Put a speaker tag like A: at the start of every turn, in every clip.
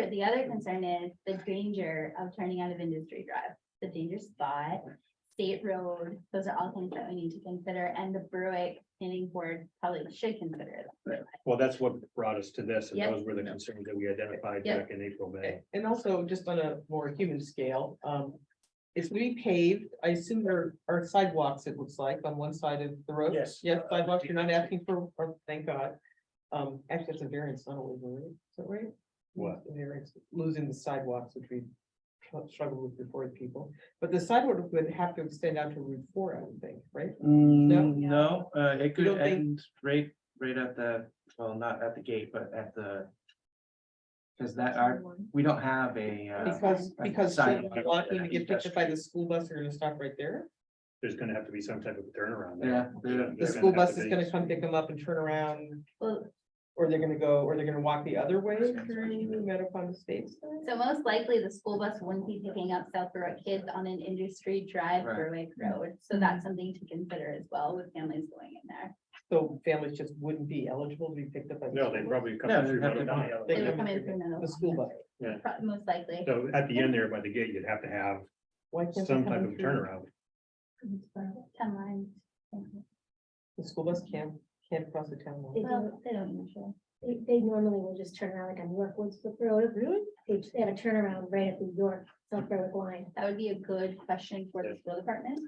A: But the other concern is the danger of turning out of Industry Drive, the danger spot, State Road, those are all things that we need to consider, and the Berwick Planning Board probably should consider that.
B: Well, that's what brought us to this, and
A: Yep.
B: those were the concerns that we identified
A: Yep.
B: back in April, May.
C: A- And also just on a more human scale, um, is we paved, I assume there are sidewalks, it looks like, on one side of the road?
B: Yes.
C: Yes, sidewalks, you're not asking for, or thank God. Um, actually, it's a variance, not a waiver, right? is that right?
B: What?
C: A Variance, losing the sidewalks, which we struggled with before the people, but the sidewalk would have to extend out to Route Four, I would think, right?
D: Mm, No, uh, it could
C: don't think-
D: end right, right at the, well, not at the gate, but at the. Cause that are, we don't have a, uh,
C: Because,
D: a
C: because
D: sidewalk
C: children walking to
D: that
C: get picked up by
D: pedestrian.
C: the school bus, are gonna stop right there.
B: There's gonna have to be some type of turnaround.
D: Yeah,
B: there.
D: the-
B: They're
C: The
B: gonna
C: school
B: have
C: bus
B: to
C: is
B: be-
C: gonna come pick them up and turn around
A: Well,
C: Or they're gonna go, or they're gonna walk the other way through Metapon Estates? then?
A: so most likely the school bus wouldn't be picking up South Berwick kids on an Industry Drive
D: Right.
A: Berwick Road, so that's something to consider as well with families going in there.
C: So families just wouldn't be eligible to be picked up. by the
B: No, they
C: school
B: probably come.
D: Yeah,
B: through
D: they'd have to
B: Mount
D: come.
B: Holly.
C: They
A: They would
C: come
A: come
C: in
A: in through
C: bus?
A: another
C: The school bus.
A: pro- Most likely.
B: So at the end there by the gate, you'd have to have
C: Why can't they
B: some
C: come
B: type
C: in
B: of
C: through-
B: turnaround.
A: Town lines.
C: The school bus can't, can't cross the town line.
E: They do,
A: Well, they don't usually.
E: they, they normally will just turn around like on York Woodsbrook Road. Really? They, they have a turnaround right at the York, South Berwick line.
A: That would be a good question for the school department.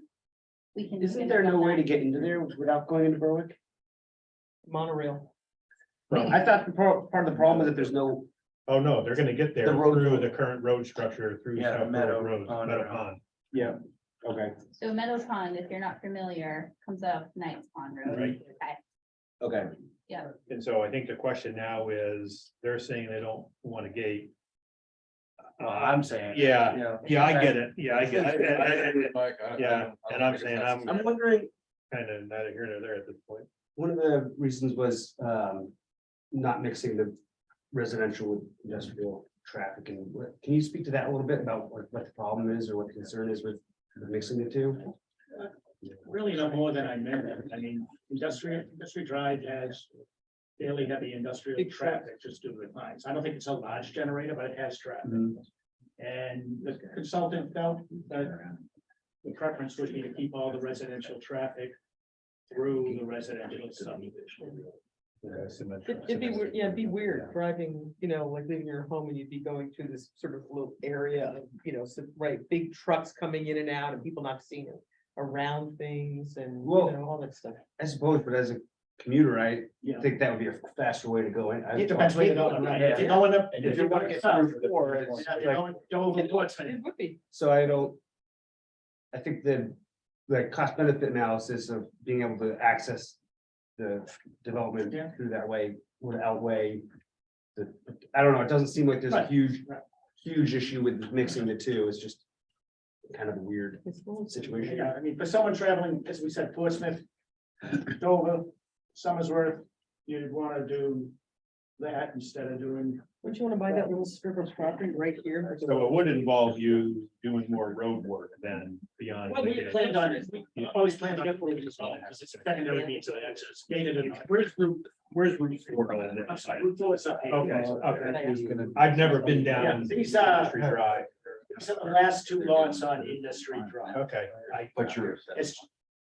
A: We can.
F: Isn't there no way to get into there without going into Berwick?
C: Monorail.
F: I thought the pro- part of the problem is that there's no,
B: Oh, no, they're gonna get there
F: The road-
B: through the current road structure through
D: Yeah,
B: South
D: Meadow
B: Road, Road,
D: Pond
B: Meadow
D: Road.
B: Pond.
F: yeah, okay,
A: So Meadow Pond, if you're not familiar, comes up Knights Pond Road.
B: Right.
A: Okay,
F: okay.
B: And so I think the question now is, they're saying they don't want a gate.
D: Well, I'm saying.
B: Yeah,
D: Yeah.
B: yeah, I get it. Yeah, I get it. I- I- I-
G: Mike, I- I
B: yeah,
G: don't- I
B: and
G: don't
B: I'm
G: think
B: saying
G: that's-
B: I'm-
F: I'm wondering,
B: Kind of neither here nor there at this point.
F: one of the reasons was um not mixing the residential with industrial traffic and what, can you speak to that a little bit about what what the problem is or what the concern is with with mixing the two?
H: really no more than I meant. I mean, industrial, industry drive has fairly heavy industrial
C: Big traffic.
H: traffic just due to the lines. I don't think it's a large generator, but it has traffic.
D: Mm-hmm.
F: Mhm.
H: And the consultant felt that the preference would be to keep all the residential traffic through the residential subdivision.
B: Yeah, symmetrical.
C: It'd it'd be, weird- yeah, it'd be weird driving, you know, like leaving your home and you'd be going to this sort of little area of, you know, some, right, big trucks coming in and out and people not seeing it. Around things and, you
F: Well-
C: know, all that stuff.
F: I suppose, but as a commuter, I
H: Yeah.
F: think that would be a faster way to go in. I-
H: It depends where you're going, right? If you're going up,
F: If you're going to get through four, it's
H: if you're
F: like-
H: going Dover, Portsmouth,
C: It would be.
F: So I don't. I think the, the cost benefit analysis of being able to access the development
H: Yeah.
F: through that way would outweigh. The, I don't know, it doesn't seem like there's a
H: Right,
F: huge,
H: right.
F: huge issue with mixing the two, it's just. Kind of a weird
C: It's a little-
F: situation.
H: Yeah, I mean, for someone traveling, as we said, Portsmouth, Dover, Somersworth, you'd wanna do that instead of doing.
C: Would you wanna buy that little strip of property right here?
B: So it would involve you doing more road work than beyond. the gate.
H: on it, we always planned to get rid of this all, because it's a secondary means of access, gated and. Where's Route, where's Route
B: four on that
H: I'm sorry,
B: side?
H: Route four is up here.
B: Okay, okay.
C: I was
F: gonna-
B: I've never been
H: Yeah,
B: down.
H: these
I: uh,
H: are-
B: Industry Drive.
H: These are the last two lots on Industry Drive.
B: Okay.
H: I-
G: But you're,
H: It's,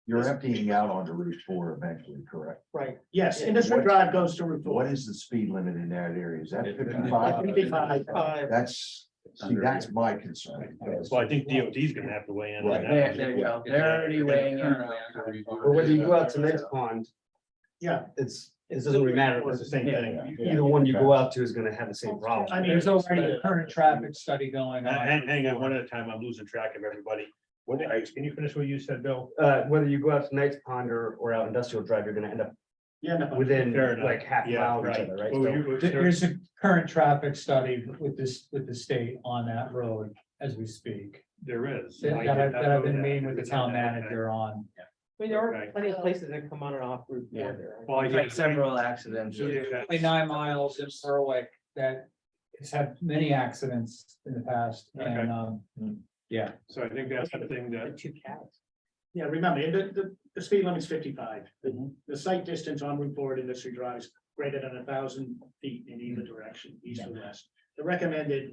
G: you're emptying out onto Route four eventually, correct?
C: Right,
H: yes, Industry Drive goes to Route four.
G: What is the speed limit in that area? Is that
C: Uh,
G: fifty-five?
H: 55.
C: five.
G: That's, see, that's my concern.
B: So I think DOT is gonna have to weigh in. on
D: Right, there, there you go. They're already weighing in.
F: Or whether you go out to next pond,
H: Yeah,
F: it's, it doesn't really matter,
B: It's the same thing.
F: either one you go out to is gonna have the same problem.
H: I mean, there's already a current traffic
G: study going
B: Uh, Hang, hang on, one at a time. I'm losing track of everybody. What, did I- can you finish what you said, Bill?
F: Uh, whether you go out to Knights Pond or, or out Industrial Drive, you're gonna end up
H: yeah, no.
F: within
B: Fair enough.
F: like half a
B: Yeah,
F: mile of each
B: right.
F: other, right?
B: Well,
F: So-
B: you-
I: There- There's a current traffic study with this, with the state on that road as we speak.
B: There is.
I: That
B: I
I: that
B: did
I: I've,
B: not
I: that I've
B: know
I: been
B: that.
I: meeting with the town
B: Okay.
I: manager on.
C: I mean, there are
B: Okay.
C: plenty of places that come on and off Route four
D: Yeah.
C: there.
B: Well, I
D: Like
B: think-
D: several accidents.
B: Yeah.
I: Only Nine miles in Berwick that has had many accidents in the past
B: Okay.
I: and, um, yeah.
B: So I think that's the thing
C: The
B: that,
C: two cats.
H: Yeah, remember, the, the, the speed limit's fifty-five.
I: Mm-hmm.
H: The, the site
I: Mm.
H: distance on Route Four at Industry Drive is greater than a thousand feet in either direction, east or west. the recommended